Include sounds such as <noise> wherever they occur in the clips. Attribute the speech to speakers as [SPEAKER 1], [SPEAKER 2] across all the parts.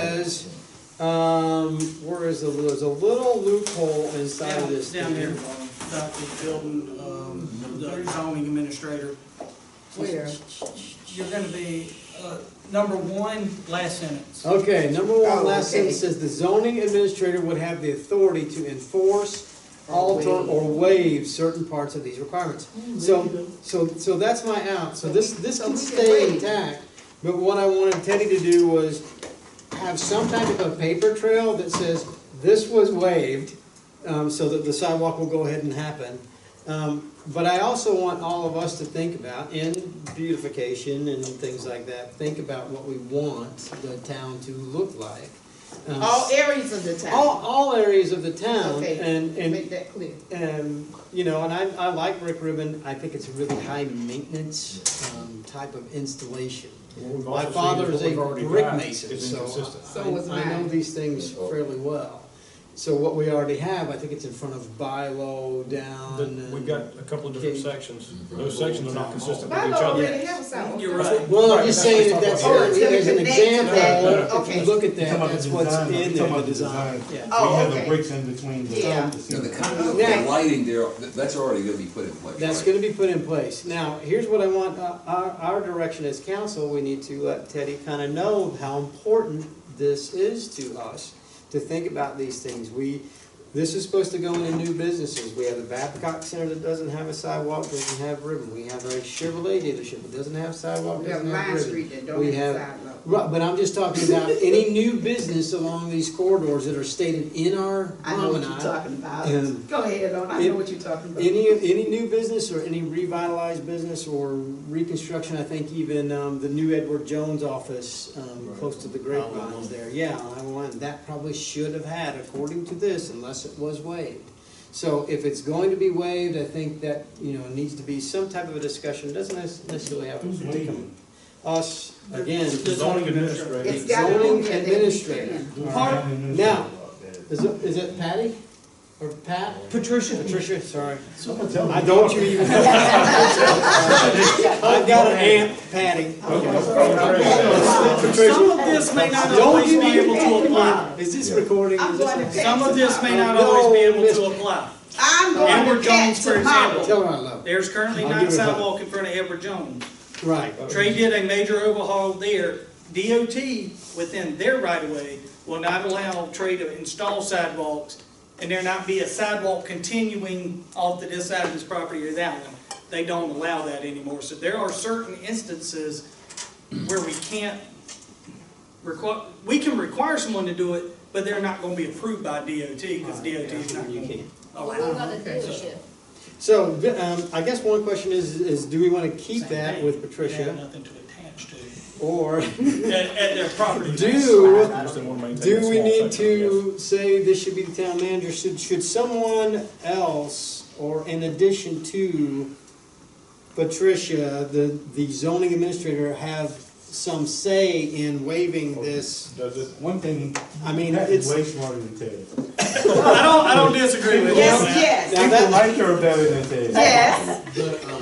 [SPEAKER 1] says, um, where is the, there's a little loophole inside of
[SPEAKER 2] Down
[SPEAKER 1] this
[SPEAKER 2] down here,
[SPEAKER 1] thing.
[SPEAKER 2] about the building, um, the zoning administrator.
[SPEAKER 3] Where?
[SPEAKER 2] You're gonna be, uh, number one, last sentence.
[SPEAKER 1] Okay, number one,
[SPEAKER 3] Oh,
[SPEAKER 1] last
[SPEAKER 3] okay.
[SPEAKER 1] sentence says, the zoning administrator would have the authority to enforce, alter, or waive certain parts of these requirements. So, so, so that's my out, so this, this
[SPEAKER 3] So
[SPEAKER 1] can
[SPEAKER 3] we can
[SPEAKER 1] stay
[SPEAKER 3] waive.
[SPEAKER 1] intact, but what I wanted Teddy to do was have some type of a paper trail that says, this was waived, um, so that the sidewalk will go ahead and happen. Um, but I also want all of us to think about, in beautification and things like that, think about what we want the town to look like. Um,
[SPEAKER 3] All areas of the
[SPEAKER 1] All,
[SPEAKER 3] town,
[SPEAKER 1] all areas of the town,
[SPEAKER 3] Okay.
[SPEAKER 1] and, and
[SPEAKER 3] make that clear.
[SPEAKER 1] and, you know, and I, I like brick ribbon, I think it's a really high maintenance, um, type of installation.
[SPEAKER 4] What we've
[SPEAKER 1] My
[SPEAKER 4] also
[SPEAKER 1] father
[SPEAKER 4] seen
[SPEAKER 1] is
[SPEAKER 4] is
[SPEAKER 1] a
[SPEAKER 4] what we've already
[SPEAKER 1] brick
[SPEAKER 4] got
[SPEAKER 1] mason,
[SPEAKER 4] is
[SPEAKER 1] so
[SPEAKER 4] inconsistent.
[SPEAKER 3] So was
[SPEAKER 1] I, I know
[SPEAKER 3] mine.
[SPEAKER 1] these things fairly well. So what we already have, I think it's in front of by low, down,
[SPEAKER 4] The-
[SPEAKER 1] and.
[SPEAKER 4] We've got a couple of different sections, those sections are not consistent with
[SPEAKER 3] By
[SPEAKER 4] each
[SPEAKER 3] law,
[SPEAKER 4] other.
[SPEAKER 3] already have something.
[SPEAKER 2] You're right.
[SPEAKER 1] Well, I'm
[SPEAKER 4] Right,
[SPEAKER 1] just
[SPEAKER 4] that's what
[SPEAKER 1] saying that
[SPEAKER 4] I'm
[SPEAKER 1] that's,
[SPEAKER 4] talking about.
[SPEAKER 3] Oh, it's
[SPEAKER 1] as an
[SPEAKER 3] connected to that.
[SPEAKER 1] example, if you
[SPEAKER 3] Okay.
[SPEAKER 1] look at that,
[SPEAKER 5] Talking about
[SPEAKER 1] that's
[SPEAKER 5] the
[SPEAKER 1] what's
[SPEAKER 5] design,
[SPEAKER 1] in
[SPEAKER 5] talking
[SPEAKER 1] there, the
[SPEAKER 5] about the
[SPEAKER 1] design,
[SPEAKER 5] design.
[SPEAKER 1] yeah.
[SPEAKER 3] Oh,
[SPEAKER 5] We have the
[SPEAKER 3] okay.
[SPEAKER 5] bricks in between the.
[SPEAKER 3] Yeah.
[SPEAKER 6] No, the
[SPEAKER 5] the-
[SPEAKER 6] conduit,
[SPEAKER 1] Now-
[SPEAKER 6] the lighting there, th- that's already gonna be put in place.
[SPEAKER 1] That's
[SPEAKER 6] right?
[SPEAKER 1] gonna be put in place. Now, here's what I want, uh, our, our direction as council, we need to let Teddy kinda know how important this is to us, to think about these things. We, this is supposed to go into new businesses. We have the Babcock Center that doesn't have a sidewalk, doesn't have ribbon. We have a Chevrolet dealership that doesn't have sidewalk,
[SPEAKER 3] We have
[SPEAKER 1] doesn't have
[SPEAKER 3] Line
[SPEAKER 1] ribbon.
[SPEAKER 3] Street that
[SPEAKER 1] We
[SPEAKER 3] don't have
[SPEAKER 1] have-
[SPEAKER 3] sidewalk.
[SPEAKER 1] Right, but I'm just talking about any new business along these corridors that are stated in our
[SPEAKER 3] I know what you're
[SPEAKER 1] promenade.
[SPEAKER 3] talking about.
[SPEAKER 1] Um,
[SPEAKER 3] Go ahead on, I
[SPEAKER 1] it-
[SPEAKER 3] know what you're talking about.
[SPEAKER 1] Any, any new business or any revitalized business or reconstruction, I think even, um, the new Edward Jones office, um, close to the grapevines there, yeah, I want, that probably should have had, according to this, unless it was waived. So if it's going to be waived, I think that, you know, needs to be some type of a discussion, doesn't necessarily have
[SPEAKER 5] Who's
[SPEAKER 1] to come.
[SPEAKER 5] leading?
[SPEAKER 1] Us, again,
[SPEAKER 4] The zoning administrator.
[SPEAKER 3] It's gotta go
[SPEAKER 1] zoning
[SPEAKER 3] there, they
[SPEAKER 1] administrator.
[SPEAKER 3] can
[SPEAKER 5] Who's
[SPEAKER 1] Part-
[SPEAKER 5] leading this?
[SPEAKER 1] now. is it, is it Patty? Or Pat?
[SPEAKER 2] Patricia.
[SPEAKER 1] Patricia, sorry.
[SPEAKER 5] Someone tell me.
[SPEAKER 1] I don't you even. I've got an amp, Patty.
[SPEAKER 2] Some of this may not
[SPEAKER 1] Don't
[SPEAKER 2] always
[SPEAKER 1] you
[SPEAKER 2] be
[SPEAKER 1] even
[SPEAKER 2] able to apply.
[SPEAKER 1] Is this recording?
[SPEAKER 3] I'm
[SPEAKER 1] Is this-
[SPEAKER 3] going to
[SPEAKER 2] Some of this may not always be able to apply.
[SPEAKER 3] I'm going
[SPEAKER 2] Edward
[SPEAKER 3] to catch
[SPEAKER 2] Jones, for
[SPEAKER 3] tomorrow.
[SPEAKER 2] example.
[SPEAKER 1] Tell her I love
[SPEAKER 2] There's currently
[SPEAKER 1] I'll
[SPEAKER 2] not
[SPEAKER 1] give it a-
[SPEAKER 2] sidewalk in front of Edward Jones.
[SPEAKER 1] her. Right.
[SPEAKER 2] Trey did a major overhaul there. DOT, within their right of way, will not allow Trey to install sidewalks, and there not be a sidewalk continuing off to this side of his property or that one. They don't allow that anymore, so there are certain instances where we can't require, we can require someone to do it, but they're not gonna be approved by DOT, because DOT is not
[SPEAKER 1] You
[SPEAKER 2] gonna
[SPEAKER 1] can't.
[SPEAKER 2] allow. it.
[SPEAKER 1] So, um, I guess one question is, is do we wanna keep
[SPEAKER 2] Same
[SPEAKER 1] that
[SPEAKER 2] thing.
[SPEAKER 1] with
[SPEAKER 2] They have
[SPEAKER 1] Patricia?
[SPEAKER 2] nothing to attach to,
[SPEAKER 1] Or <laughs>
[SPEAKER 2] at, at their property.
[SPEAKER 1] do,
[SPEAKER 4] I just didn't wanna maintain a
[SPEAKER 1] do we
[SPEAKER 4] small
[SPEAKER 1] need
[SPEAKER 4] section, I guess.
[SPEAKER 1] to say this should be the town manager? Should, should someone else or in addition to Patricia, the, the zoning administrator have some say in waiving this?
[SPEAKER 4] Does it?
[SPEAKER 5] One thing,
[SPEAKER 1] I mean,
[SPEAKER 5] Pat
[SPEAKER 1] it's,
[SPEAKER 5] is way smarter than Ted.
[SPEAKER 2] I don't, I don't disagree with you.
[SPEAKER 3] Yes,
[SPEAKER 2] on that.
[SPEAKER 3] yes,
[SPEAKER 1] Now
[SPEAKER 5] People
[SPEAKER 1] that-
[SPEAKER 5] like her better than Ted.
[SPEAKER 3] yes.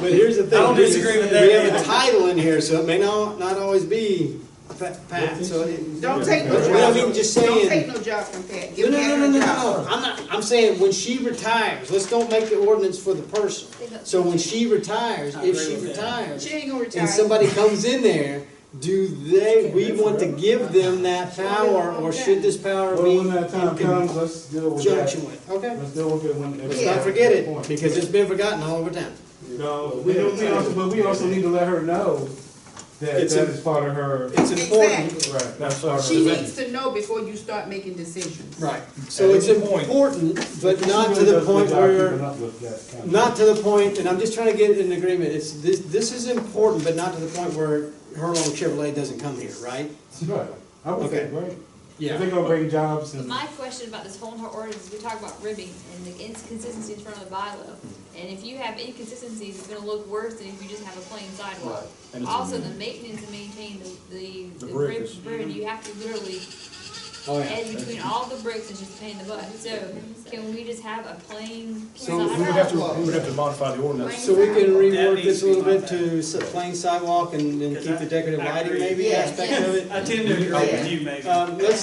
[SPEAKER 1] But here's the thing.
[SPEAKER 2] I don't disagree with that
[SPEAKER 1] We have a
[SPEAKER 2] either.
[SPEAKER 1] title in here, so it may not, not always be pa- Pat, so. it-
[SPEAKER 3] Don't take no
[SPEAKER 1] But what I mean,
[SPEAKER 3] job,
[SPEAKER 1] just
[SPEAKER 3] don't take
[SPEAKER 1] saying.
[SPEAKER 3] no job from Pat.
[SPEAKER 1] No,
[SPEAKER 3] Give
[SPEAKER 1] no, no,
[SPEAKER 3] Pat
[SPEAKER 1] no, no,
[SPEAKER 3] her
[SPEAKER 1] no,
[SPEAKER 3] job.
[SPEAKER 1] I'm not, I'm saying when she retires, let's don't make the ordinance for the person. So when she retires,
[SPEAKER 2] I
[SPEAKER 1] if
[SPEAKER 2] agree
[SPEAKER 1] she
[SPEAKER 2] with that.
[SPEAKER 1] retires,
[SPEAKER 3] She ain't gonna retire.
[SPEAKER 1] and somebody comes in there, do they, we want to give them that power, or should this power
[SPEAKER 5] Well,
[SPEAKER 1] be
[SPEAKER 5] when that time
[SPEAKER 1] in
[SPEAKER 5] comes, let's deal with that.
[SPEAKER 1] conjunction with? Okay,
[SPEAKER 5] Let's deal with it when. at
[SPEAKER 1] let's
[SPEAKER 5] that
[SPEAKER 1] not forget it,
[SPEAKER 5] point.
[SPEAKER 1] because it's been forgotten all over town.
[SPEAKER 5] No, we don't, we also, but we also need to let her know that
[SPEAKER 1] It's
[SPEAKER 5] that
[SPEAKER 1] a-
[SPEAKER 5] is part of her.
[SPEAKER 1] It's important,
[SPEAKER 3] Exactly.
[SPEAKER 5] Right.
[SPEAKER 4] That's part of
[SPEAKER 3] She
[SPEAKER 4] the-
[SPEAKER 3] needs to know before you start making decisions.
[SPEAKER 1] Right, so it's important, but not to the point where, not to the point, and I'm just trying to get an agreement, it's, this, this is important, but not to the point where Hurlong Chevrolet doesn't come here, right?
[SPEAKER 5] Right, I would
[SPEAKER 1] Okay.
[SPEAKER 5] say, right, if they're gonna bring jobs and.
[SPEAKER 7] My question about this whole entire ordinance, is we talk about ribbing and the inconsistencies in front of the bylaw. And if you have inconsistencies, it's gonna look worse than if you just have a plain sidewalk.
[SPEAKER 4] And it's a-
[SPEAKER 7] Also, the maintenance and maintain the, the,
[SPEAKER 4] The
[SPEAKER 7] the
[SPEAKER 4] brick
[SPEAKER 7] rib,
[SPEAKER 4] is-
[SPEAKER 7] ribbon, you have to literally
[SPEAKER 1] Oh, yeah.
[SPEAKER 7] And between all the bricks, it's just a pain in the butt. So can we just have a plain
[SPEAKER 1] So
[SPEAKER 4] We would have
[SPEAKER 7] sidewalk?
[SPEAKER 4] to, we would have to modify the ordinance.
[SPEAKER 1] So we can rework
[SPEAKER 2] That
[SPEAKER 1] this
[SPEAKER 2] needs
[SPEAKER 1] a
[SPEAKER 2] to
[SPEAKER 1] little
[SPEAKER 2] be
[SPEAKER 1] bit
[SPEAKER 2] looked
[SPEAKER 1] to s- plain sidewalk and, and
[SPEAKER 2] Because
[SPEAKER 1] keep
[SPEAKER 2] I-
[SPEAKER 1] the decorative
[SPEAKER 2] I
[SPEAKER 1] lighting
[SPEAKER 2] agree.
[SPEAKER 1] maybe
[SPEAKER 3] Yeah.
[SPEAKER 1] aspect of it?
[SPEAKER 2] I tend to agree with you, Megan.
[SPEAKER 1] Um, let's,